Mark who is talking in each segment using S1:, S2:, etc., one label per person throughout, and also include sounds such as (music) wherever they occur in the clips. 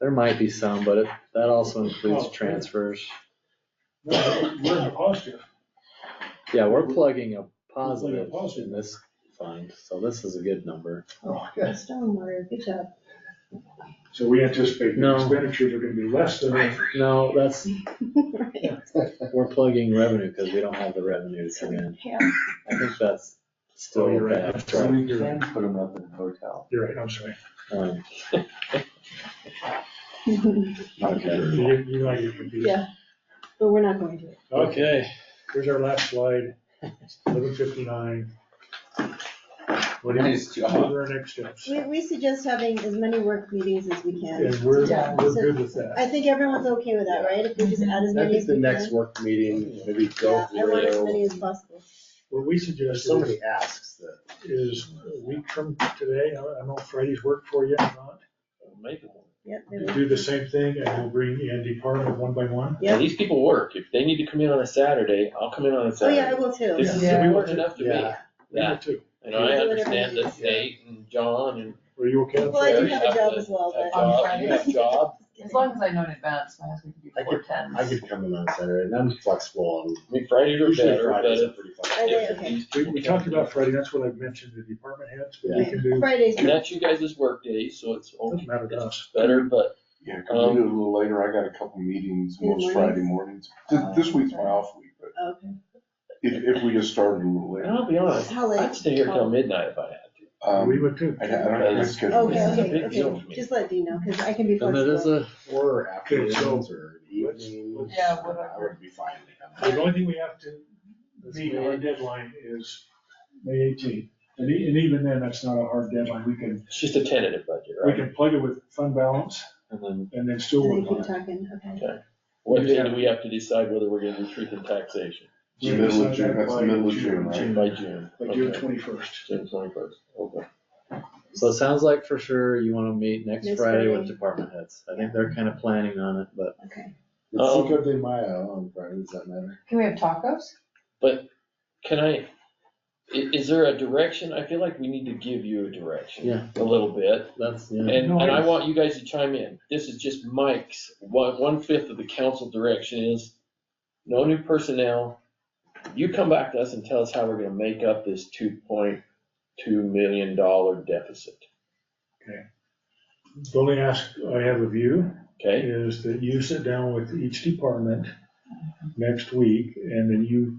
S1: There might be some, but it- that also includes
S2: Oh,
S1: transfers.
S2: We're we're in the positive.
S1: Yeah, we're plugging a positive
S2: positive.
S1: in this fund, so this is a good number.
S2: Oh, good.
S3: Stormwater, good (laughs) job.
S2: So we anticipate the
S1: No.
S2: expenditures are gonna be less than,
S1: No, that's,
S3: Right.
S1: we're plugging revenue because we don't have the revenue to come in.
S3: Yeah.
S1: I think that's still
S2: Oh, you're right.
S1: bad.
S2: So we can
S4: Put them up in the hotel.
S2: you're right, I'm sorry.
S5: (laughs)
S1: (laughs) Um, Okay.
S2: You, you know, you're confused.
S3: Yeah, but we're not going to.
S2: Okay,
S1: Okay,
S2: here's our last slide, eleven fifty-nine. What do you,
S4: Nice
S2: what
S4: job.
S2: are our next steps?
S3: We, we suggest having as many work meetings as we can.
S2: And we're,
S6: Yeah.
S2: we're good with that.
S3: I think everyone's okay with that, right? If we just add as
S5: I
S3: many
S5: think
S3: as
S5: the
S3: we can.
S5: next work meeting, maybe go
S3: Yeah, I want as
S5: through,
S3: many as possible.
S2: What we
S5: there's
S2: suggest
S5: so
S2: is,
S5: many asks that.
S2: is a week from today, I I don't know if Friday's work for you or not.
S7: Make it work.
S3: Yep. there we go.
S2: Do the same thing and we'll bring Andy Parham one by one.
S3: Yeah.
S7: These people work. If they need to come in on a Saturday, I'll come in on a
S3: Oh, yeah, I
S7: Saturday.
S3: will too.
S7: This is,
S6: Yeah.
S7: we worked enough to me.
S5: Yeah.
S7: Yeah.
S2: Number two,
S7: And I
S3: Yeah.
S7: understand that Nate and John and
S2: Are you okay?
S3: Well, I do have a
S7: Have
S3: job
S7: to-
S3: as well,
S7: have
S3: but.
S7: job, you have
S3: (laughs)
S7: job.
S6: As long as I know in advance, my husband can do
S5: I
S6: four
S5: could-
S6: tens.
S5: I could come in on Saturday, and I'm flexible on.
S7: I mean, Fridays are
S5: usually
S7: better, but
S5: Fridays are
S7: if-
S5: pretty
S3: Are
S5: flexible.
S3: they
S7: if
S3: okay?
S7: these
S2: We,
S7: people
S2: we
S7: can't
S2: talked
S7: do
S2: about
S7: it-
S2: Friday, that's what I've mentioned to the department heads, but we
S3: Yeah.
S2: can do,
S3: Fridays,
S7: And that's you guys' work days, so it's
S2: doesn't
S7: okay,
S2: matter to
S7: it's
S2: us.
S7: better, but
S8: Yeah, can
S5: Um,
S8: we do it a little later? I got a couple meetings
S3: In the
S8: most Friday mornings. Th-
S5: Uh,
S8: This week's my off week, but
S3: okay.
S8: if, if we just started a little
S7: and
S8: later,
S7: I'll be honest,
S3: How late?
S7: I'd stay here
S3: um,
S7: till midnight if I had to.
S2: We
S8: um,
S2: would too.
S8: I I don't have my schedule.
S3: Okay,
S7: This is a
S3: okay,
S7: big deal
S3: okay.
S7: for me.
S3: Just let Dean know, because I can be
S1: and it is
S3: flexible.
S1: a,
S5: Or afternoons
S2: so-
S5: or evenings.
S6: Yeah,
S5: I
S6: whatever.
S5: would be fine to come.
S2: The only thing we have to meet our deadline is May eighteenth. And e- and even then, that's not a hard deadline. We can,
S7: It's just a tentative budget,
S2: we
S7: right?
S2: can plug it with fund balance
S1: and then
S2: and then
S3: And
S2: still
S3: then you
S2: work on
S3: keep
S2: it.
S3: talking, okay.
S7: What
S2: we
S7: day
S2: have-
S7: do we have to decide whether we're gonna do truth and taxation?
S2: We
S8: Middle of
S2: decide
S8: June,
S2: that
S8: that's the
S2: by
S8: middle of June, right?
S7: By June.
S2: By June
S7: Okay.
S2: twenty-first.
S7: June twenty-first, okay.
S1: So it sounds like for sure you wanna meet next
S3: Next
S1: Friday with
S3: Friday.
S1: department heads. I think they're kinda planning on it, but
S3: Okay.
S5: It's
S7: Um,
S5: Cinco de Mayo on Friday, does that matter?
S6: Can we have tacos?
S7: Can I, i- is there a direction? I feel like we need to give you a direction.
S1: Yeah.
S7: A little bit.
S1: that's, yeah.
S7: And, and I want you guys to chime in. This is just Mike's, one, one fifth of the council direction is no new personnel. You come back to us and tell us how we're gonna make up this two point two million dollar deficit,
S2: The only ask I have of you
S7: okay?
S2: is that you sit down with each department next week and then you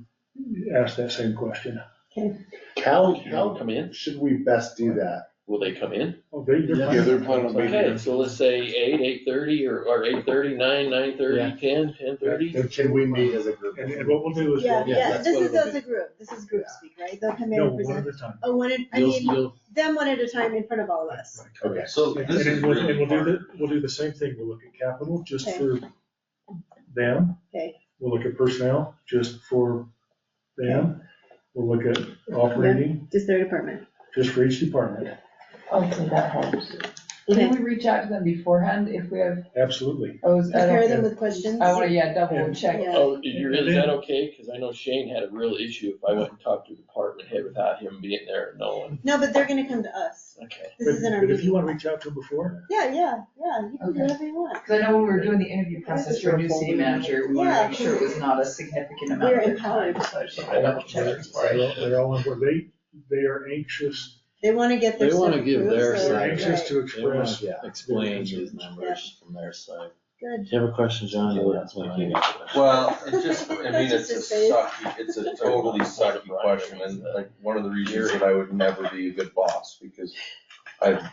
S2: ask that same question.
S5: How,
S7: They'll
S5: how
S7: come in,
S5: should we best do that?
S7: will they come in?
S2: Oh, they, they're
S8: Yeah, they're
S2: planning.
S8: planning on being
S7: Okay,
S8: here.
S7: so let's say eight, eight thirty, or, or eight thirty, nine, nine
S1: Yeah.
S7: thirty, ten, ten thirty.
S5: And Can we meet as a group?
S2: And, and what we'll do is.
S3: Yeah,
S2: we'll-
S3: yeah,
S1: that's
S3: this
S1: what
S3: is
S1: it'll
S3: as
S1: be.
S3: a group, this is group speak, right? They'll come in
S2: No,
S3: and
S2: one at
S3: present.
S2: a time.
S3: Oh, one at, I
S1: You'll,
S3: mean,
S1: you'll,
S3: them one at a time in front of all of us.
S5: Okay.
S4: So
S2: And
S4: this is
S2: then we'll, and
S4: really
S2: we'll do
S4: hard.
S2: the, we'll do the same thing, we'll look at capital just
S3: Okay.
S2: for them.
S3: Okay.
S2: We'll look at personnel just for them. We'll look at operating
S3: Just their department.
S2: just for each department,
S6: Hopefully that helps.
S3: Okay.
S6: Can we reach out to them beforehand if we have,
S2: absolutely.
S6: oh, is- I
S3: Prepare
S6: don't,
S3: them with questions.
S6: I wanna, yeah, double check.
S3: Yeah.
S7: Oh, you're, is that okay? Cause I know Shane had a real issue if I went and talked to the department head without him being there and knowing.
S3: No, but they're gonna come to us.
S7: Okay.
S3: This is in
S2: But-
S3: our
S2: But if you
S3: meeting.
S2: want to reach out to them before,
S3: Yeah, yeah, yeah, you can do
S6: Okay.
S3: whatever you want.
S6: Cause I know when we were doing the interview process for a new city manager, we wanted to make sure it was not a significant amount
S3: We're
S6: of time,
S3: empowered.
S6: so I just wanted to double check.
S2: they're they're all, they're all, on board. they, they are anxious,
S3: They wanna get their
S1: They
S3: stuff
S1: wanna
S3: approved.
S1: give their
S3: so-
S2: they're
S1: Right.
S2: anxious to
S1: they wanna
S2: express.
S1: explain these numbers from their side.
S3: Good.
S1: If you have a question, John, you'll ask me.
S4: Well, it just, I mean,
S3: That's
S4: it's
S3: just
S4: a
S3: his face.
S4: sucky, it's a totally sucky question, and like, one of the reasons that I would never be a good boss, because I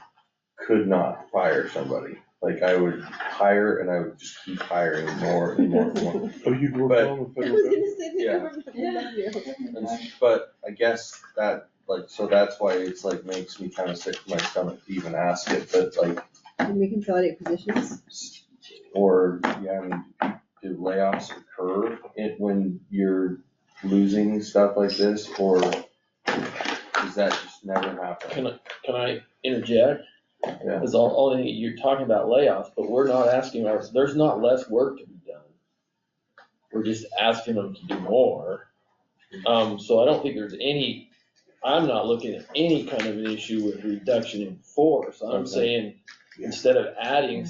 S4: could not fire somebody, like, I would hire and I would just keep hiring more and more
S2: (laughs)
S4: and more.
S8: Oh, you'd work
S4: But-
S8: on the
S3: (laughs) I
S8: federal
S3: was
S8: government?
S3: gonna say the
S4: Yeah.
S3: government would love you.
S4: And- But I guess that, like, so that's why it's like makes me kind of sick to my stomach to even ask it, but like,
S3: Can we consolidate positions?
S4: or, yeah, I mean, do layoffs occur it when you're losing stuff like this, or does that just never happen?
S7: Can I, can I interject?
S4: Yeah.
S7: Cause all, all, you're talking about layoffs, but we're not asking our, there's not less work to be done. We're just asking them to do more. Um, so I don't think there's any, I'm not looking at any kind of an issue with reduction in force. I'm
S4: Okay.
S7: saying, instead of adding